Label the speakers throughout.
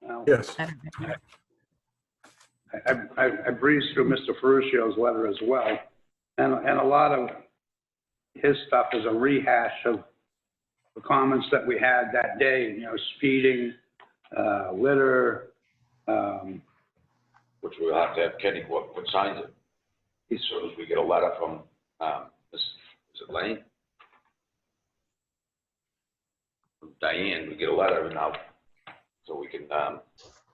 Speaker 1: Well,
Speaker 2: Yes.
Speaker 3: I don't know.
Speaker 1: I, I- I breezed through Mr. Ferruccio's letter as well, and, and a lot of his stuff is a rehash of the comments that we had that day, you know, speeding, uh, litter, um,
Speaker 4: which we'll have to have Kenny what, what signs it. As soon as we get a letter from, um, is, is it Lane? From Diane, we get a letter and now, so we can, um,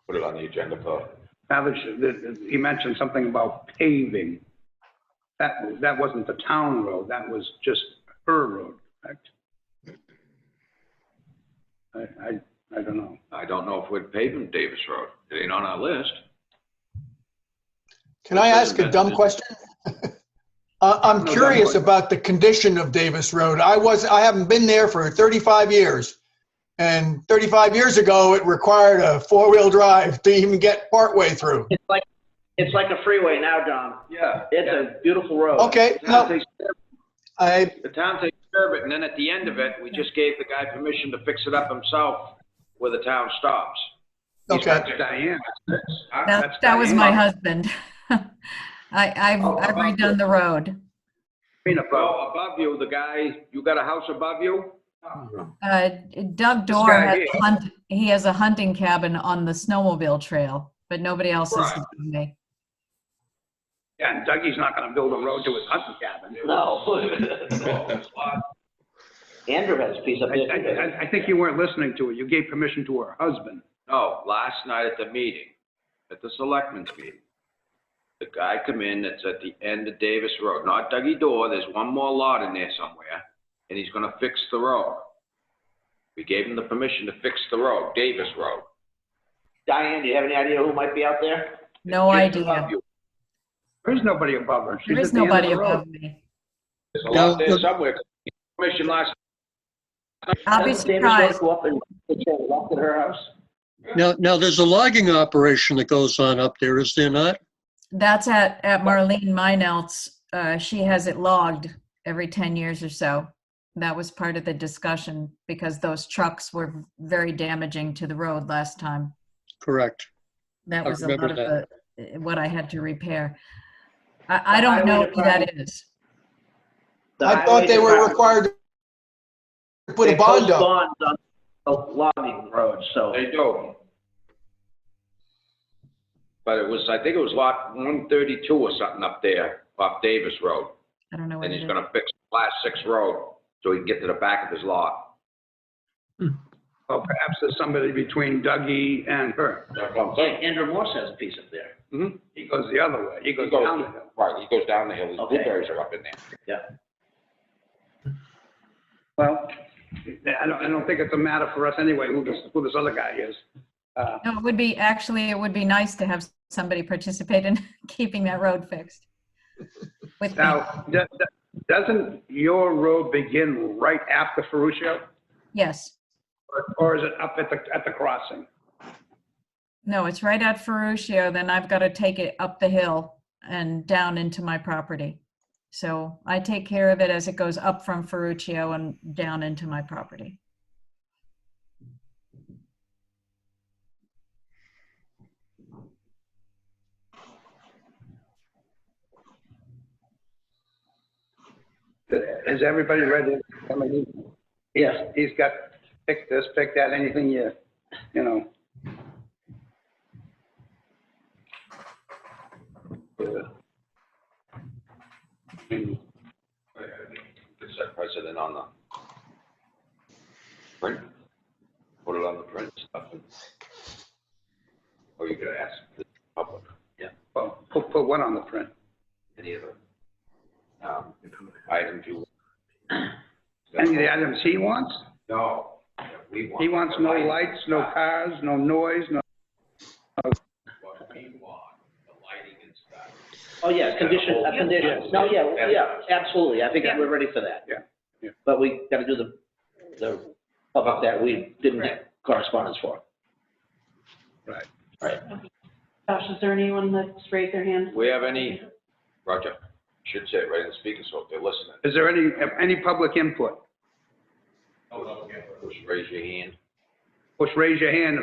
Speaker 4: put it on the agenda for,
Speaker 1: Now that you- that- he mentioned something about paving. That, that wasn't the town road, that was just her road, correct? I, I, I don't know.
Speaker 4: I don't know if we're paving Davis Road. It ain't on our list.
Speaker 5: Can I ask a dumb question? Uh,
Speaker 1: No
Speaker 5: I'm
Speaker 1: dumb
Speaker 5: curious
Speaker 1: question.
Speaker 5: about the condition of Davis Road. I was, I haven't been there for 35 years. And 35 years ago, it required a four-wheel drive to even get partway through.
Speaker 6: It's like, it's like a freeway now, John.
Speaker 4: Yeah.
Speaker 6: It's a beautiful road.
Speaker 5: Okay,
Speaker 4: The town
Speaker 5: no,
Speaker 4: takes care of
Speaker 5: I,
Speaker 4: it- the town takes care of it, and then at the end of it, we just gave the guy permission to fix it up himself where the town stops.
Speaker 5: okay.
Speaker 1: That's Diane. That's- I-
Speaker 3: That,
Speaker 1: that's
Speaker 3: that was
Speaker 1: Diane.
Speaker 3: my husband. I, I've,
Speaker 4: Oh,
Speaker 3: I've
Speaker 4: about
Speaker 3: redone the road.
Speaker 4: Well, above you, the guy, you got a house above you?
Speaker 3: Uh, Doug Dorr,
Speaker 1: guy
Speaker 3: has
Speaker 1: here.
Speaker 3: a hunt- he has a hunting cabin on the snowmobile trail, but nobody else is.
Speaker 4: Right.
Speaker 3: doing it.
Speaker 1: Yeah, and Dougie's not gonna build a road to his hunting cabin.
Speaker 6: No. Andrew has a piece up
Speaker 1: Oh. I,
Speaker 6: there.
Speaker 1: I,
Speaker 6: too.
Speaker 1: I- I think you weren't listening to it. You gave permission to her husband.
Speaker 4: No, last night at the meeting, at the selectmen's meeting, the guy come in that's at the end of Davis Road, not Dougie Door, there's one more lot in there somewhere, and he's gonna fix the road. We gave him the permission to fix the road, Davis Road.
Speaker 6: Diane, do you have any idea who might be out there?
Speaker 3: No
Speaker 4: Just above
Speaker 3: idea.
Speaker 4: you.
Speaker 1: There is nobody above her. She's
Speaker 3: There is
Speaker 1: at the end of
Speaker 3: nobody
Speaker 1: the road.
Speaker 3: above me.
Speaker 4: There's a lot there somewhere, permission last,
Speaker 3: I'll be
Speaker 6: Doesn't Davis Road
Speaker 3: surprised.
Speaker 6: Go up and, walk at her house?
Speaker 7: Now, now there's a logging operation that goes on up there, is there not?
Speaker 3: That's at, at Marlene Meinelt's. Uh, she has it logged every 10 years or so. That was part of the discussion because those trucks were very damaging to the road last time.
Speaker 7: Correct.
Speaker 3: That
Speaker 7: I
Speaker 3: was a
Speaker 7: remember
Speaker 3: lot of the, what I had to repair. I, I don't
Speaker 6: Highway
Speaker 3: know who that is.
Speaker 6: The
Speaker 5: I thought
Speaker 6: highway
Speaker 5: they were
Speaker 6: department-
Speaker 5: required to put
Speaker 6: they
Speaker 5: a bond
Speaker 6: post
Speaker 5: up.
Speaker 6: bonds on Logging roads, so.
Speaker 4: they do. But it was, I think it was lot one thirty-two or something up there, off Davis Road.
Speaker 3: I don't know what
Speaker 4: And
Speaker 3: it
Speaker 4: he's
Speaker 3: is.
Speaker 4: gonna fix the last six road, so he can get to the back of his lot.
Speaker 1: Well, perhaps there's somebody between Dougie and her.
Speaker 4: That's what I'm
Speaker 6: Yeah, Andrew Morse has a piece up there.
Speaker 4: saying.
Speaker 1: He goes the other way. He
Speaker 4: He
Speaker 1: goes
Speaker 4: goes,
Speaker 1: down the hill.
Speaker 4: right, he goes down the hill, his
Speaker 6: Okay.
Speaker 4: blueberries are up in there.
Speaker 1: Well, I don't, I don't think it's a matter for us anyway, who this, who this other guy is. Uh,
Speaker 3: No, it would be, actually, it would be nice to have somebody participate in keeping that road fixed. With me.
Speaker 1: Now, do- do- doesn't your road begin right after Ferruccio?
Speaker 3: Yes.
Speaker 1: Or- Or is it up at the, at the crossing?
Speaker 3: No, it's right at Ferruccio, then I've got to take it up the hill and down into my property. So I take care of it as it goes up from Ferruccio and down into my property.
Speaker 1: Is everybody ready? I mean, he- yes, he's got, pick this, pick that, anything you, you know.
Speaker 4: It's that precedent on the print, put it on the print stuff. and- Or you could ask the public,
Speaker 1: Well, put, put one on the print.
Speaker 4: any of the, um, items you.
Speaker 1: Any of the items he wants?
Speaker 4: No, that we want.
Speaker 1: He wants no lights, no cars, no noise, no
Speaker 4: What we want, the lighting and stuff.
Speaker 6: Oh, yeah, condition, a condition. No, yeah, yeah, absolutely. I think
Speaker 1: Yeah.
Speaker 6: we're ready for that.
Speaker 1: Yeah, yeah.
Speaker 6: But we gotta do the, the, about that we didn't get correspondence for.
Speaker 1: Right.
Speaker 6: Right.
Speaker 8: Josh, is there anyone that's raised their hand?
Speaker 4: We have any, Roger, should say it right in the speaker, so if they're listening.
Speaker 1: Is there any, any public input?
Speaker 4: Just raise your hand.
Speaker 1: Push, raise your hand